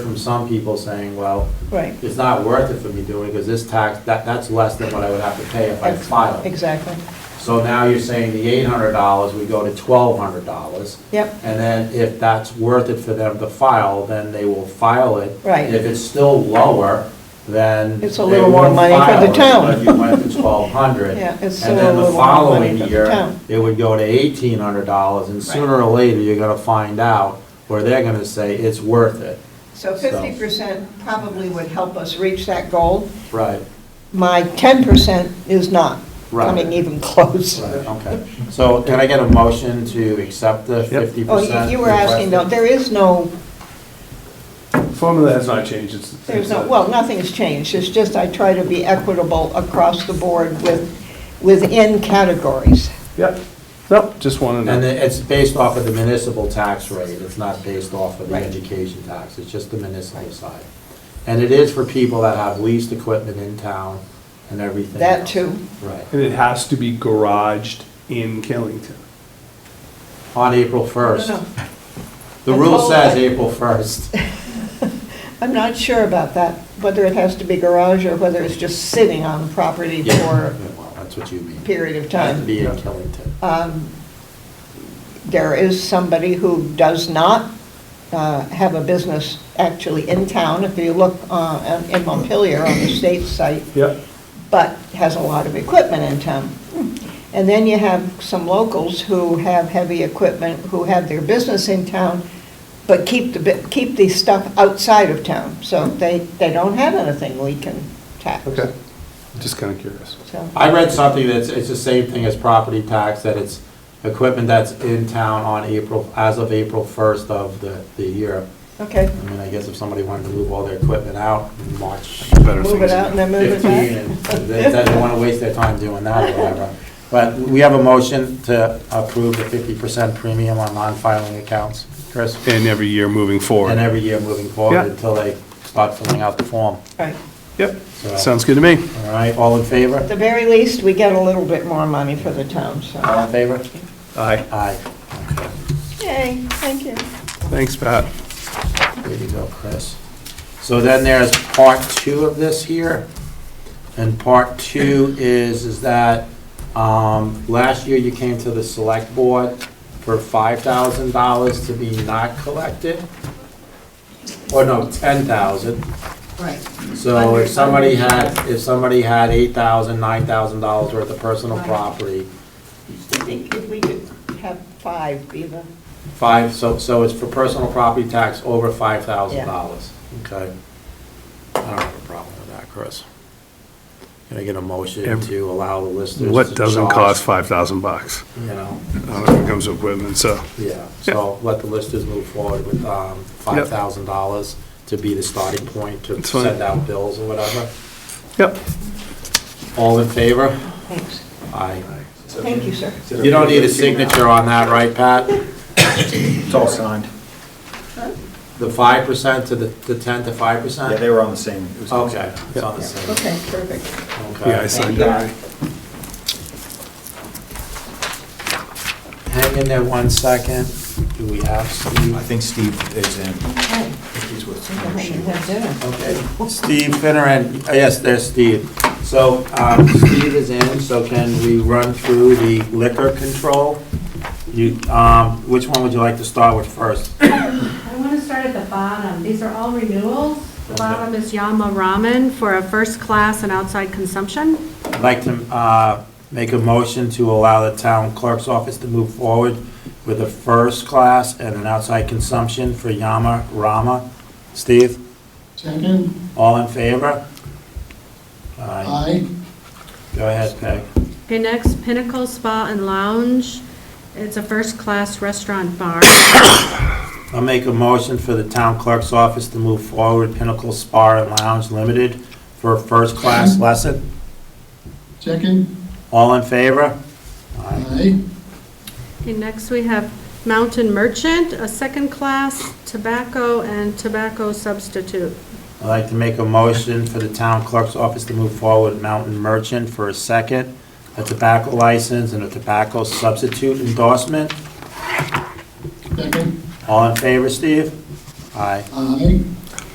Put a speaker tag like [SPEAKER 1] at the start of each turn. [SPEAKER 1] from some people saying, well,
[SPEAKER 2] Right.
[SPEAKER 1] it's not worth it for me doing, because this tax, that, that's less than what I would have to pay if I filed.
[SPEAKER 2] Exactly.
[SPEAKER 1] So now you're saying the eight hundred dollars, we go to twelve hundred dollars.
[SPEAKER 2] Yep.
[SPEAKER 1] And then if that's worth it for them to file, then they will file it.
[SPEAKER 2] Right.
[SPEAKER 1] If it's still lower, then.
[SPEAKER 2] It's a
[SPEAKER 1] they
[SPEAKER 2] little more
[SPEAKER 1] won't
[SPEAKER 2] money for
[SPEAKER 1] file
[SPEAKER 2] the
[SPEAKER 1] it,
[SPEAKER 2] town.
[SPEAKER 1] But you went to twelve hundred.
[SPEAKER 2] Yeah, it's
[SPEAKER 1] And
[SPEAKER 2] still
[SPEAKER 1] then
[SPEAKER 2] a
[SPEAKER 1] the
[SPEAKER 2] little more money
[SPEAKER 1] following
[SPEAKER 2] for the
[SPEAKER 1] year,
[SPEAKER 2] town.
[SPEAKER 1] it would go to eighteen hundred dollars, and sooner or later, you're gonna find out where they're gonna say it's worth it.
[SPEAKER 2] So
[SPEAKER 1] So-
[SPEAKER 2] fifty percent probably would help us reach that goal.
[SPEAKER 1] Right.
[SPEAKER 2] My ten percent is not coming
[SPEAKER 1] Right.
[SPEAKER 2] even close.
[SPEAKER 1] Okay, so can I get a motion to accept the
[SPEAKER 3] Yep.
[SPEAKER 1] fifty
[SPEAKER 2] Oh,
[SPEAKER 1] percent?
[SPEAKER 2] you- you were asking, though, there is no,
[SPEAKER 3] Formula has not changed, it's.
[SPEAKER 2] there's no,
[SPEAKER 3] it's a-
[SPEAKER 2] well, nothing's changed. It's just I try to be equitable across the board with, within categories.
[SPEAKER 3] Yep, no, just wanted
[SPEAKER 1] And
[SPEAKER 3] to,
[SPEAKER 1] it- it's based off of the municipal tax rate, it's not based off of the
[SPEAKER 2] Right.
[SPEAKER 1] education tax, it's just the municipal side. And it is for people that have leased equipment in town and everything.
[SPEAKER 2] That
[SPEAKER 1] else.
[SPEAKER 2] too.
[SPEAKER 1] Right,
[SPEAKER 3] and it has to be garaged in Killington.
[SPEAKER 1] on April first.
[SPEAKER 2] No, no.
[SPEAKER 1] The
[SPEAKER 2] I
[SPEAKER 1] rule
[SPEAKER 2] told
[SPEAKER 1] says
[SPEAKER 2] I-
[SPEAKER 1] April first.
[SPEAKER 2] I'm not sure about that, whether it has to be garage or whether it's just sitting on the property for
[SPEAKER 1] That's what you mean.
[SPEAKER 2] a period of
[SPEAKER 1] Has to
[SPEAKER 2] time.
[SPEAKER 1] be in Killington.
[SPEAKER 2] Um, There is somebody who does not uh, have a business actually in town, if you look uh, in Montpelier on the state site,
[SPEAKER 3] Yep,
[SPEAKER 2] but has a lot of equipment in town. And then you have some locals who have heavy equipment, who have their business in town, but keep the, bi- keep the stuff outside of town, so they, they don't have anything we can tax.
[SPEAKER 3] okay, just kind of curious.
[SPEAKER 2] So,
[SPEAKER 1] I read something that's, it's the same thing as property tax, that it's equipment that's in town on April, as of April first of the, the year.
[SPEAKER 2] okay,
[SPEAKER 1] I mean, I guess if somebody wanted to move all their equipment out in March
[SPEAKER 3] Better
[SPEAKER 2] move it
[SPEAKER 3] things.
[SPEAKER 2] out and then move it
[SPEAKER 1] fifteen,
[SPEAKER 2] back.
[SPEAKER 1] and they they don't wanna waste their time doing that or whatever. But we have a motion to approve the fifty percent premium on non-filing accounts, Chris,
[SPEAKER 3] And every year moving
[SPEAKER 1] and
[SPEAKER 3] forward.
[SPEAKER 1] every year moving forward
[SPEAKER 3] Yeah.
[SPEAKER 1] until they start filling out the form.
[SPEAKER 2] Right.
[SPEAKER 3] Yep,
[SPEAKER 1] So-
[SPEAKER 3] sounds good to me.
[SPEAKER 1] All right, all in
[SPEAKER 2] At
[SPEAKER 1] favor?
[SPEAKER 2] the very least, we get a little bit more money for the town, so.
[SPEAKER 1] All in favor?
[SPEAKER 3] Aye.
[SPEAKER 1] Aye.
[SPEAKER 2] Yay, thank you.
[SPEAKER 3] Thanks, Pat.
[SPEAKER 1] Way to go, Chris. So then there's part two of this here. And part two is, is that, um, last year you came to the select board for five thousand dollars to be not collected. Or no, ten thousand.
[SPEAKER 2] Right.
[SPEAKER 1] So if somebody had, if somebody had eight thousand, nine thousand dollars worth of personal property,
[SPEAKER 2] I think if we could have five be the,
[SPEAKER 1] Five, so, so it's for personal property tax over five thousand dollars, okay? I don't have a problem with that, Chris. Can I get a motion
[SPEAKER 3] Ev-
[SPEAKER 1] to allow the listers to charge?
[SPEAKER 3] What doesn't cost 5,000 bucks?
[SPEAKER 1] You know,
[SPEAKER 3] Uh, When it comes to equipment, so,
[SPEAKER 1] yeah, so let the listers move forward with, um, five thousand dollars to be the starting point to
[SPEAKER 3] It's fine.
[SPEAKER 1] send out bills or whatever.
[SPEAKER 3] yep.
[SPEAKER 1] All in favor?
[SPEAKER 2] thanks.
[SPEAKER 1] Aye.
[SPEAKER 2] Thank you, sir.
[SPEAKER 1] You don't need a signature on that, right, Pat?
[SPEAKER 4] It's all signed.
[SPEAKER 1] The five percent to the, the ten to five
[SPEAKER 4] Yeah,
[SPEAKER 1] percent?
[SPEAKER 4] they were on the same. it was-
[SPEAKER 1] Okay, it's on the same,
[SPEAKER 2] Okay, perfect.
[SPEAKER 1] okay.
[SPEAKER 3] Yeah, I signed
[SPEAKER 2] you.
[SPEAKER 3] it.
[SPEAKER 1] Hang in there one second. Do we have Steve?
[SPEAKER 4] I think Steve is in.
[SPEAKER 2] Okay.
[SPEAKER 4] He's with
[SPEAKER 2] I
[SPEAKER 4] some
[SPEAKER 2] think
[SPEAKER 4] issue.
[SPEAKER 2] we have dinner.
[SPEAKER 1] Okay. Steve Finneran, uh, yes, there's Steve. So um, Steve is in, so can we run through the liquor control? You, um, which one would you like to start with first?
[SPEAKER 5] I want to start at the bottom. These are all renewals. The bottom is Yama Ramen for a first class and outside consumption.
[SPEAKER 1] I'd like to uh, make a motion to allow the town clerk's office to move forward with a first class and an outside consumption for Yama Rama. Steve,
[SPEAKER 6] Second,
[SPEAKER 1] all in favor? Aye.
[SPEAKER 6] aye.
[SPEAKER 1] Go ahead, Peg.
[SPEAKER 5] Okay, next, Pinnacle Spa and Lounge. It's a first class restaurant bar.
[SPEAKER 1] I'll make a motion for the town clerk's office to move forward with Pinnacle Spa and Lounge Limited for a first-class lesson.
[SPEAKER 6] Second,
[SPEAKER 1] All in favor? Aye.
[SPEAKER 6] aye.
[SPEAKER 5] Okay, next we have Mountain Merchant, a second class tobacco and tobacco substitute.
[SPEAKER 1] I'd like to make a motion for the town clerk's office to move forward with Mountain Merchant for a second, a tobacco license and a tobacco substitute endorsement.
[SPEAKER 6] Second,
[SPEAKER 1] All in favor, Steve? Aye.
[SPEAKER 6] aye.